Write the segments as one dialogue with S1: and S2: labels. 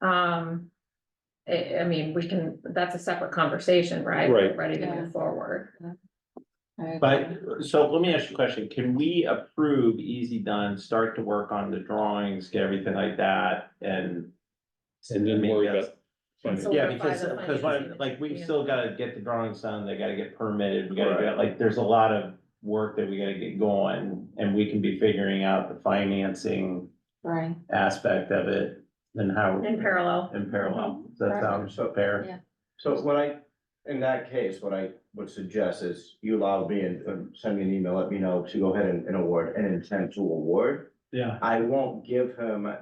S1: Um. I, I mean, we can, that's a separate conversation, right?
S2: Right.
S1: We're Ready to
S3: Yeah.
S1: move forward.
S2: But, so let me ask you a question, can we approve Easy Done, start to work on the drawings, get everything like that, and?
S4: And then worry
S2: Maybe that's-
S1: So
S2: Yeah,
S1: we're by
S2: because, uh,
S1: the
S2: because
S1: financing.
S2: what- like, we've
S1: Yeah.
S2: still gotta get the drawings done, they gotta get permitted, we gotta
S4: Right.
S2: get, like, there's a lot of work that we gotta get going, and we can be figuring out the financing
S3: Right,
S2: aspect of it, and how.
S1: In parallel.
S2: In parallel, Does that sounds fair.
S3: Yeah.
S4: So what I, in that case, what I would suggest is you allow me and and send me an email, let me know to go ahead and, and award, an intent to award.
S2: Yeah.
S4: I won't give him a,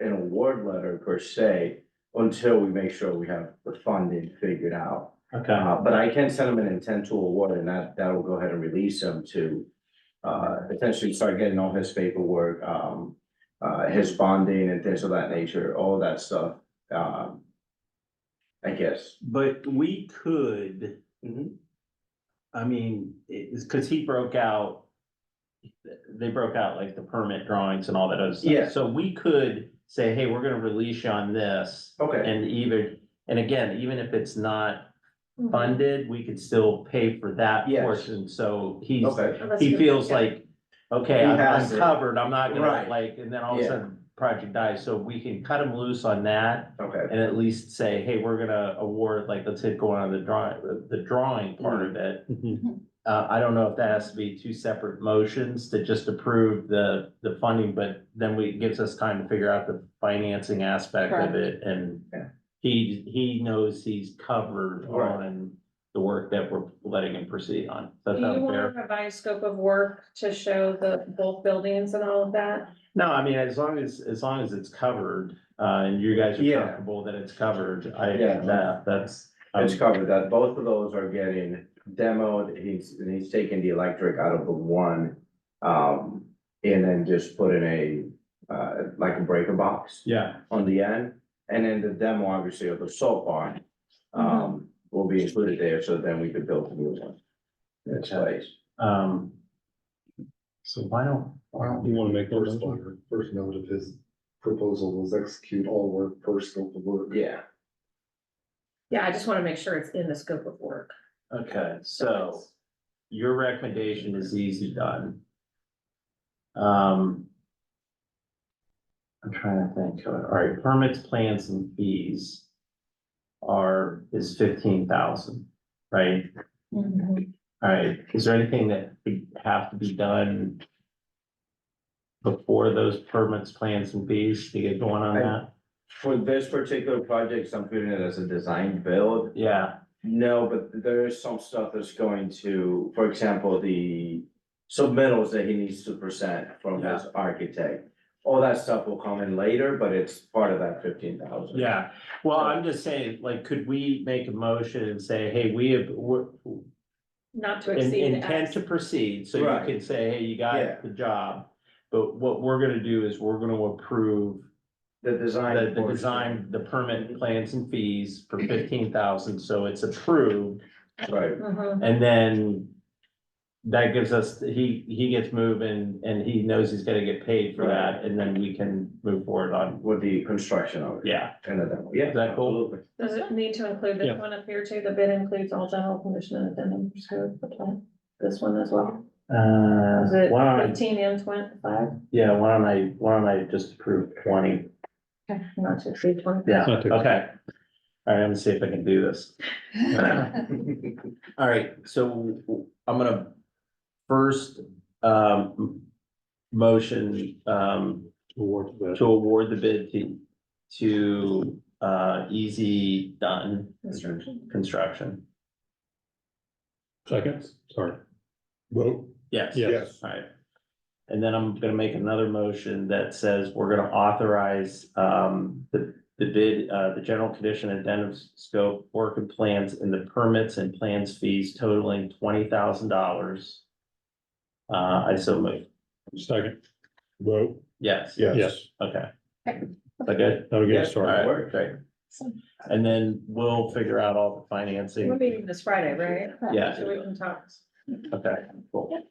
S4: an award letter per se until we make sure we have the funding figured out.
S2: Okay,
S4: Uh, but I can send him an intent to award and that, that will go ahead and release him to uh, essentially start getting all his paperwork, um, uh, his bonding and things of that nature, all that stuff. Um, I guess.
S2: but we could. Mm-hmm.
S4: Mhm.
S2: I mean, it's because he broke out. They broke out like the permit drawings and all that other stuff.
S4: Yeah.
S2: So we could say, hey, we're gonna release you on this
S4: Okay,
S2: and either, and again, even if it's not funded, we could still pay for that
S4: Yes.
S2: portion. So he's,
S4: okay,
S1: Unless
S2: he
S1: you-
S2: feels
S1: yeah.
S2: like, okay,
S4: He
S2: I'm I'm
S4: has it.
S2: covered. I'm not gonna
S4: Right.
S2: like, and then all of a
S4: Yeah.
S2: sudden project dies. So we can cut him loose on that.
S4: okay,
S2: And at least say, hey, we're gonna award, like, let's hit going on the drawing, the drawing part of it.
S1: Mm-hmm.
S2: Uh, I don't know if that has to be two separate motions to just approve the, the funding, but then we, it gives us time to figure out the financing aspect of
S3: Correct.
S2: it and.
S4: Yeah.
S2: He, he knows he's covered
S4: Right.
S2: on the work that we're letting him proceed on.
S1: Do
S2: Does
S1: you
S2: that sound
S1: want
S2: fair?
S1: to revise scope of work to show the both buildings and all of that?
S2: No, I mean, as long as, as long as it's covered, uh, and you guys are
S4: Yeah.
S2: comfortable that it's covered, I,
S4: Yeah.
S2: that, that's. I'm-
S4: it's covered that, both of those are getting demoed, he's, and he's taking the electric out of the one. Um, and then just put in a, uh, like a breaker box.
S2: Yeah.
S4: on the end, and then the demo, obviously, of the salt barn. Um, will be included there, so then we could build the new one. in its place.
S2: Um. So why don't, why don't
S5: You
S2: you,
S5: wanna make
S2: First
S5: first, first note of his proposal was execute all work per scope of work.
S4: yeah,
S1: Yeah, I just want to make sure it's in the scope of work.
S2: okay, so your recommendation is easy done. Um. I'm trying to think, all right, permits, plans and fees. Are, is fifteen thousand, right? All right, is there anything that would have to be done? Before those permits, plans and fees to get going on
S4: I-
S2: that?
S4: for this particular project, so I'm putting it as a design build.
S2: Yeah,
S4: No, but there is some stuff that's going to, for example, the submittals that he needs to present from his architect. All that stuff will come in later, but it's part of that fifteen thousand.
S2: Yeah, well, I'm just saying, like, could we make a motion and say, hey, we have, we're.
S1: Not to
S2: in-
S1: exceed.
S2: Intent
S1: X.
S2: to proceed, so you
S4: Right.
S2: can say, hey, you
S4: Yeah.
S2: got the job. But what we're gonna do is we're gonna approve
S4: The design.
S2: the, the
S4: portion.
S2: design, the permit plans and fees for fifteen thousand, so it's approved.
S4: Right,
S1: Mhm.
S2: And then. That gives us, he, he gets moving and he knows he's gonna get paid for that, and then we can move forward on,
S4: with the construction of it.
S2: yeah.
S4: And a demo, yeah.
S2: Is that cool?
S4: absolutely.
S1: Does it need to include this
S2: Yeah.
S1: one up here too? The bid includes all general condition and addendum, so the plan, this one as well.
S2: Uh,
S1: Is it
S2: why don't I-
S1: fifteen and twenty-five?
S2: Yeah, why don't I, why don't I just approve twenty?
S1: Not to exceed twenty.
S2: Yeah, okay. All right, I'm gonna see if I can do this. All right, so I'm gonna first, um, motion, um,
S5: Award that.
S2: to award the bid to, to, uh, Easy Done
S1: Construction.
S2: Construction.
S5: Seconds, sorry. Vote.
S2: Yes.
S5: Yes.
S2: Alright. And then I'm gonna make another motion that says we're gonna authorize um the the bid, uh the general condition addendum scope, work and plans and the permits and plans fees totaling twenty thousand dollars. Uh, I so move,
S5: Second. Vote.
S2: yes,
S5: Yes.
S2: okay. Is that good?
S5: That'll
S4: get
S5: get
S4: us
S5: us
S4: started.
S2: Alright,
S4: Work.
S2: great. And then we'll figure out all the financing.
S1: We're meeting this Friday, right?
S2: Yeah.
S1: So we can talk.
S2: Okay, cool.